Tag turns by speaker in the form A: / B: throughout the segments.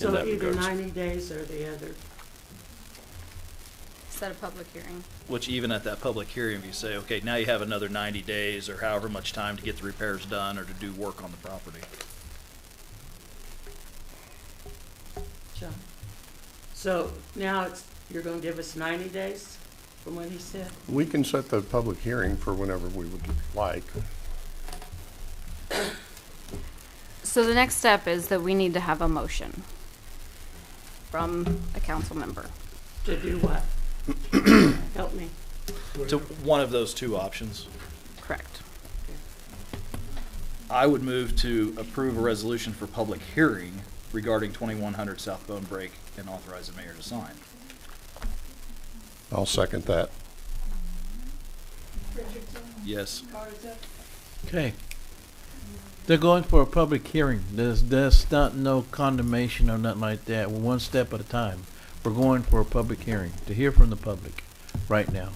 A: in
B: So
A: that
B: either
A: regards.
B: ninety days or the other.
C: set a public hearing.
A: Which even at that public hearing, if you say, okay, now you have another ninety days or however much time to get the repairs done or to do work on the property.
B: John. So now it's, you're gonna give us ninety days from what he said?
D: We can set the public hearing for whenever we would like.
C: So the next step is that we need to have a motion from a council member.
B: To do what? Help me.
A: To one of those two options.
C: Correct.
A: I would move to approve a resolution for public hearing regarding twenty-one hundred South Bone Break and authorize the mayor to sign.
D: I'll second that.
A: Yes.
E: Okay. They're going for a public hearing. There's, there's not no condemnation or nothing like that. We're one step at a time. We're going for a public hearing to hear from the public right now.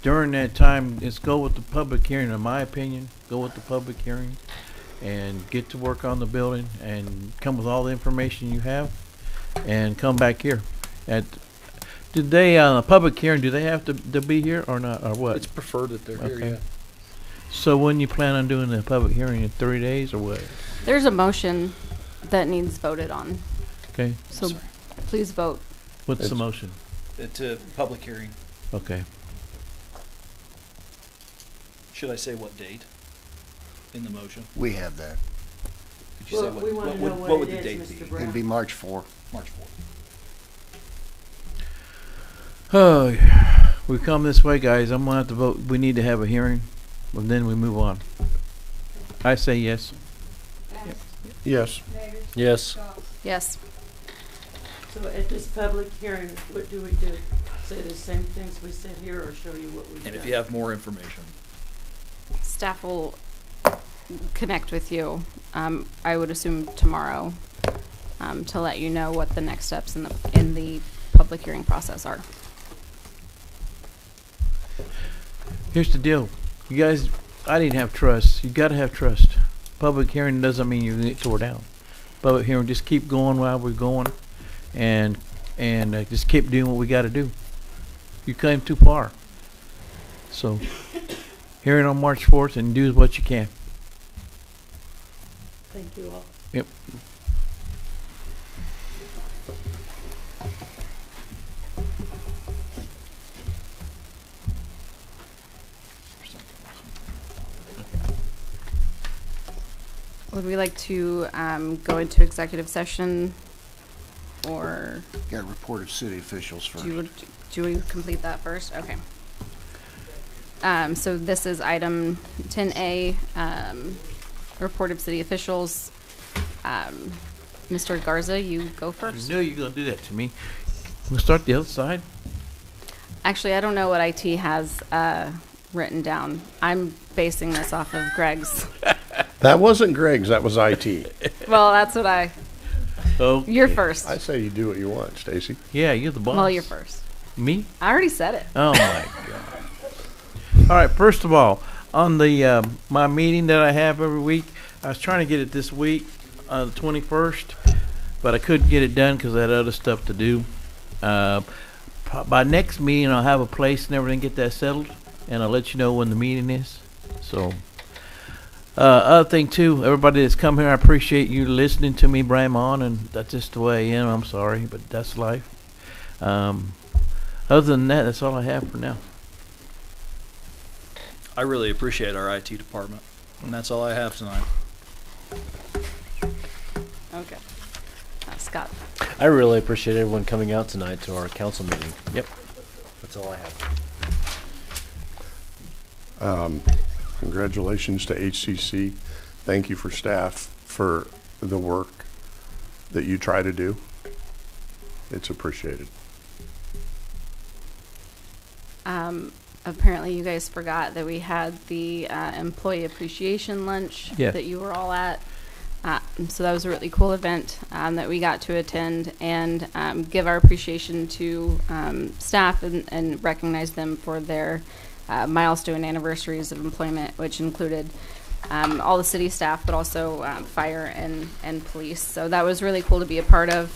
E: During that time, it's go with the public hearing, in my opinion, go with the public hearing and get to work on the building and come with all the information you have and come back here. At, did they, uh, public hearing, do they have to, to be here or not, or what?
F: It's preferred that they're here,
E: Okay.
F: yeah.
E: So when you plan on doing the public hearing in three days or what?
C: There's a motion that needs voted on,
E: Okay,
C: so please vote.
E: what's the
D: It's-
E: motion?
A: Uh, To public hearing,
E: Okay,
A: should I say what date in the motion?
G: We have that.
A: Could you say
B: Well, we
A: what-
B: wanna
A: what
B: know
A: would-
B: what
A: would the
B: it is,
A: date
B: Mr.
A: be?
B: Brown.
G: It'd be March 4.
A: March fourth.
E: oh, we come this way, guys, I'm gonna have to vote, we need to have a hearing, and then we move on. I say yes.
D: Yes,
F: Yes,
C: Yes.
B: So at this public hearing, what do we do? Say the same things we said here or show you what we've done?
A: And if you have more information,
C: Staff will connect with you, um, I would assume tomorrow, um, to let you know what the next steps in the, in the public hearing process are.
E: Here's the deal, you guys, I didn't have trust, you gotta have trust. Public hearing doesn't mean you get tore down. Public hearing, just keep going while we're going, and, and uh, just keep doing what we gotta do. You came too far. So, hearing on March fourth, and do what you can.
B: Thank you all.
E: Yep.
C: Would we like to, um, go into executive session? Or
G: Got a report of city officials first.
C: do you, do we complete that first? Okay. Um, so this is item ten A, um, report of city officials. Um, Mr. Garza, you go first.
E: I knew you were gonna do that to me. We'll start the other side.
C: Actually, I don't know what IT has, uh, written down. I'm basing this off of Greg's.
D: that wasn't Greg's, that was IT.
C: Well, that's what I,
E: Oh,
C: you're first.
D: I say you do what you want, Stacy.
E: Yeah, you're the boss.
C: Well, you're first.
E: Me?
C: I already said it.
E: Oh my god. All right. First of all, on the um, my meeting that I have every week, I was trying to get it this week, uh, the twenty first, but I couldn't get it done because I had other stuff to do. Uh, pro- by next meeting, I'll have a place and everything get that settled, and I'll let you know when the meeting is. So. Uh, other thing too, everybody that's come here, I appreciate you listening to me, Bram, on, and that's just the way I am. I'm sorry, but that's life. Um, other than that, that's all I have for now.
A: I really appreciate our IT department, and that's all I have tonight.
C: Okay. Uh, Scott.
F: I really appreciate everyone coming out tonight to our council meeting.
E: Yep.
F: That's all I have.
D: Congratulations to HCC. Thank you for staff for the work that you try to do. It's appreciated.
C: Um, apparently, you guys forgot that we had the uh, employee appreciation lunch
E: Yeah.
C: that you were all at. Uh, and so that was a really cool event um, that we got to attend and um, give our appreciation to um, staff and, and recognize them for their uh, milestone anniversaries of employment, which included um, all the city staff, but also um, fire and, and police. So that was really cool to be a part of.